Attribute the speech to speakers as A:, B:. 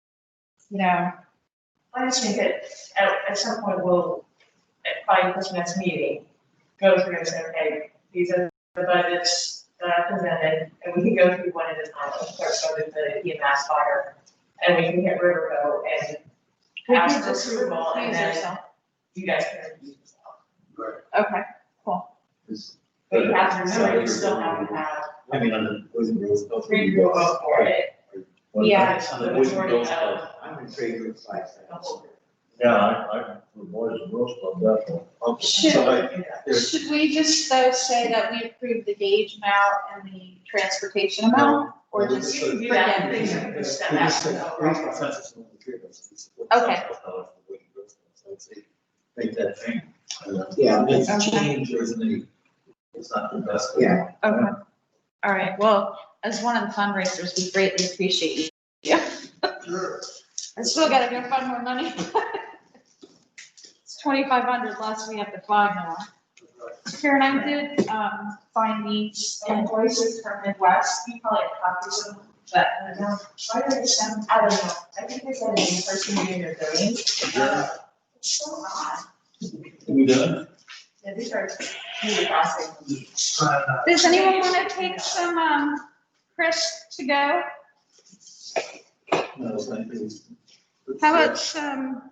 A: you know, I just think that at, at some point we'll, at probably this next meeting, go through and say, okay, these are the budgets that I presented, and we can go through one at a time, of course, so that the EMS fire, and we can hit riverboat, and
B: We can
A: ask for
B: just
A: approval, and
B: recuse
A: then
B: yourself.
A: you guys can review yourself.
B: Okay,
A: But you have to remember, you still have to have
C: I mean, on the Boys and Girls Club.
A: three rules for it.
C: Well,
B: Yeah.
C: it's On the Boys and Girls Club.
D: I'm in three group five.
C: Yeah, I, I, the Boys and Girls Club, definitely. Um,
B: Should-
C: so I-
B: should we just though say that we approve the gauge amount and the transportation amount? Or just,
A: You can do that, and things
B: Forget
A: are just
D: We
A: that
D: just said three consensus on the three of us. It's four
B: Okay.
D: thousand dollars for the Boys and Girls Club, so I'd say,
C: Make that thing.
D: Yeah,
C: It's
B: Okay.
C: change, isn't it? It's not the best.
D: Yeah.
B: okay, all right, well, as one of the fundraisers, we greatly appreciate you.
C: Sure.
B: I still gotta go find more money. It's twenty-five hundred less we have to find now. Karen, I did, um, find these
A: Invoices from Midwest, you probably have copies of them, but uh, I don't know, try to understand, I don't know, I think they said in the first meeting they're doing. Uh, It's so odd,
C: We done?
A: Yeah, these are really fascinating.
B: Does anyone wanna take some, um, Chris to go?
C: No, it's not.
B: How about some